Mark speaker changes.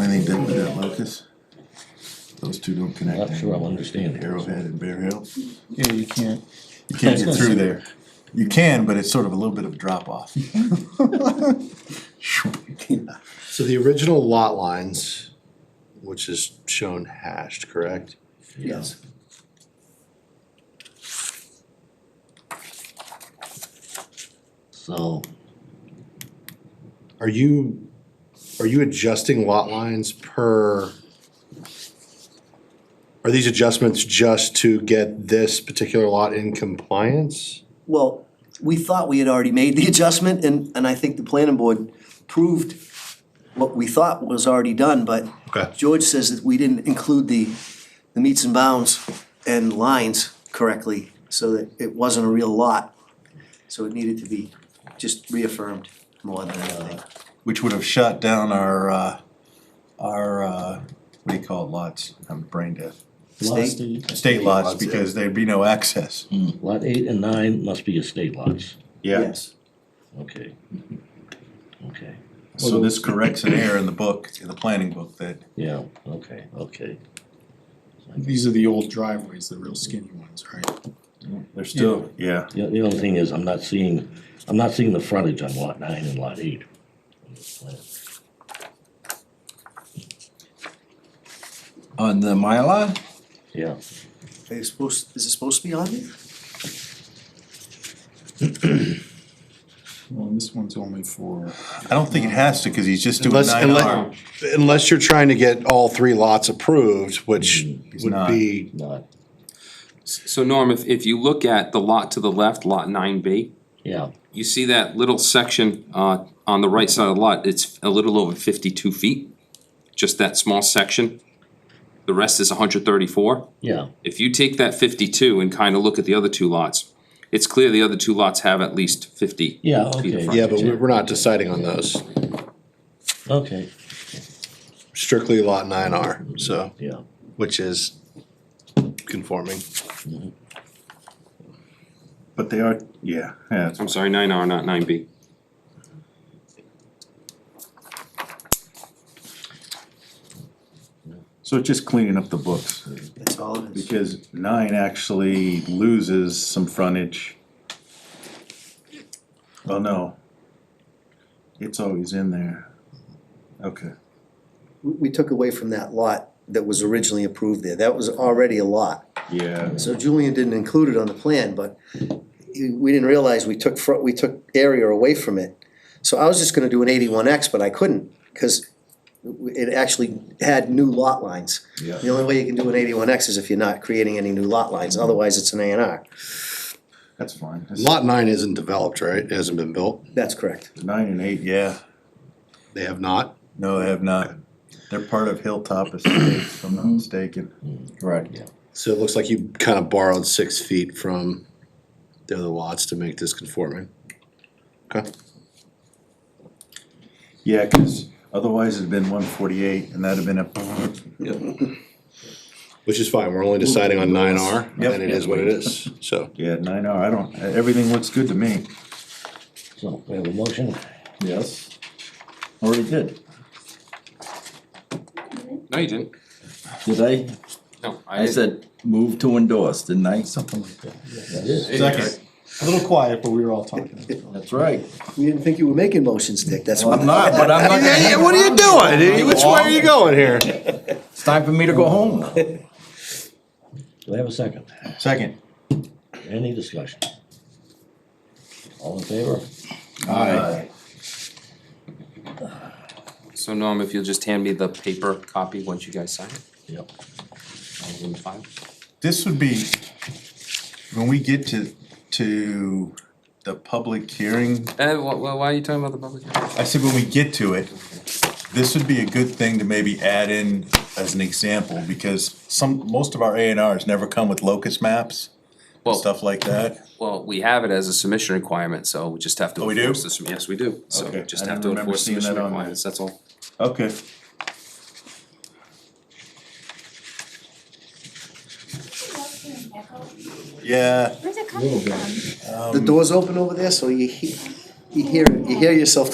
Speaker 1: anything done with that locus? Those two don't connect.
Speaker 2: Not sure I'll understand it.
Speaker 1: Arrowhead and Bear Hill,
Speaker 3: Yeah, you can't.
Speaker 1: you can't get through there. You can, but it's sort of a little bit of a drop off.
Speaker 4: So the original lot lines, which is shown hashed, correct?
Speaker 1: Yes.
Speaker 2: So,
Speaker 4: Are you, are you adjusting lot lines per? Are these adjustments just to get this particular lot in compliance?
Speaker 5: Well, we thought we had already made the adjustment and, and I think the planning board proved what we thought was already done, but
Speaker 4: Okay.
Speaker 5: George says that we didn't include the, the meets and bounds and lines correctly, so that it wasn't a real lot. So it needed to be just reaffirmed more than anything.
Speaker 1: Which would have shot down our, uh, our, uh, what do you call it, lots, I'm brain dead.
Speaker 2: lot
Speaker 5: State?
Speaker 2: eight,
Speaker 1: State lots,
Speaker 4: Lots, yeah. Mm.
Speaker 1: because there'd be no access.
Speaker 2: lot eight and nine must be estate lots,
Speaker 5: Yes.
Speaker 2: okay. Okay,
Speaker 1: So this corrects an error in the book, in the planning book, that
Speaker 2: yeah, okay, okay.
Speaker 3: These are the old driveways, the real skinny ones, right?
Speaker 1: they're still, yeah.
Speaker 2: The, the only thing is, I'm not seeing, I'm not seeing the frontage on lot nine and lot eight. on this plan.
Speaker 6: On the Mylar?
Speaker 2: Yeah,
Speaker 5: Are you supposed, is it supposed to be on there?
Speaker 3: Well, and this one's only for,
Speaker 1: I don't think it has to, cause he's just doing
Speaker 4: Unless,
Speaker 1: nine R.
Speaker 4: unless, unless you're trying to get all three lots approved, which
Speaker 1: Mm, He's
Speaker 4: would
Speaker 1: not.
Speaker 4: be,
Speaker 2: not,
Speaker 7: So Norm, if, if you look at the lot to the left, lot nine B,
Speaker 2: yeah,
Speaker 7: you see that little section, uh, on the right side of the lot, it's a little over fifty-two feet. Just that small section. The rest is hundred thirty-four.
Speaker 2: yeah,
Speaker 7: If you take that fifty-two and kinda look at the other two lots, it's clear the other two lots have at least fifty.
Speaker 2: yeah,
Speaker 7: Feet of
Speaker 2: okay,
Speaker 4: yeah, but we- we're not deciding on those.
Speaker 2: okay,
Speaker 4: Strictly lot nine R, so,
Speaker 2: yeah.
Speaker 4: which is conforming.
Speaker 1: But they are, yeah, yeah.
Speaker 7: I'm sorry, nine R, not nine B.
Speaker 1: So it's just cleaning up the books,
Speaker 5: That's all it is.
Speaker 1: because nine actually loses some frontage. Oh, no. It's always in there. Okay.
Speaker 5: We, we took away from that lot that was originally approved there. That was already a lot.
Speaker 1: Yeah.
Speaker 5: So Julian didn't include it on the plan, but we didn't realize we took, fro- we took area away from it. So I was just gonna do an eighty-one X, but I couldn't, because it actually had new lot lines.
Speaker 1: Yeah.
Speaker 5: The only way you can do an eighty-one X is if you're not creating any new lot lines, otherwise it's an A and R.
Speaker 1: That's fine. It's
Speaker 4: Lot nine isn't developed, right? It hasn't been built.
Speaker 5: That's correct.
Speaker 1: Nine and eight, yeah.
Speaker 4: They have not.
Speaker 1: No, they have not. They're part of Hilltop Estates, if I'm not mistaken.
Speaker 6: Right.
Speaker 4: So it looks like you kind of borrowed six feet from the other lots to make this conforming. Okay.
Speaker 1: Yeah, because otherwise it'd been one forty-eight, and that'd have been a,
Speaker 4: Which is fine, we're only deciding on nine R,
Speaker 1: Yep.
Speaker 4: and it is what it is, so.
Speaker 1: yeah, nine R, I don't, everything looks good to me.
Speaker 2: So, we have a motion,
Speaker 1: Yes. Already did.
Speaker 7: No, you didn't.
Speaker 6: Did I?
Speaker 7: No, I
Speaker 6: I
Speaker 7: didn't.
Speaker 6: said move to endorse, didn't I?
Speaker 3: something like that.
Speaker 1: Second.
Speaker 3: A little quiet, but we were all talking.
Speaker 6: That's right.
Speaker 5: We didn't think you were making motions, Dick, that's why.
Speaker 6: I'm not, but I'm not.
Speaker 4: what are you doing? Which way are you going here?
Speaker 6: It's time for me to go home.
Speaker 2: do I have a second?
Speaker 1: Second.
Speaker 2: Any discussion? All in favor?
Speaker 1: Aye.
Speaker 7: So Norm, if you'll just hand me the paper copy once you guys sign it,
Speaker 2: Yep.
Speaker 7: I'll go and file.
Speaker 1: This would be, when we get to, to the public hearing,
Speaker 7: Eh, wh- wh- why are you talking about the public hearing?
Speaker 1: I said when we get to it, this would be a good thing to maybe add in as an example, because some, most of our A and Rs never come with locus maps and
Speaker 6: Oh.
Speaker 7: Well-
Speaker 1: stuff like that.
Speaker 7: Well, we have it as a submission requirement, so we just have to
Speaker 1: Oh, we do?
Speaker 7: enforce this, yes, we do, so
Speaker 1: Okay,
Speaker 7: we just
Speaker 1: I
Speaker 7: have
Speaker 1: didn't
Speaker 7: to
Speaker 1: remember
Speaker 7: enforce
Speaker 1: seeing
Speaker 7: submission
Speaker 1: that on there.
Speaker 7: requirements, that's all.
Speaker 1: Okay. Yeah.
Speaker 8: Where's it coming from?
Speaker 5: Um, The door's open over there, so you, he- you hear, you hear yourself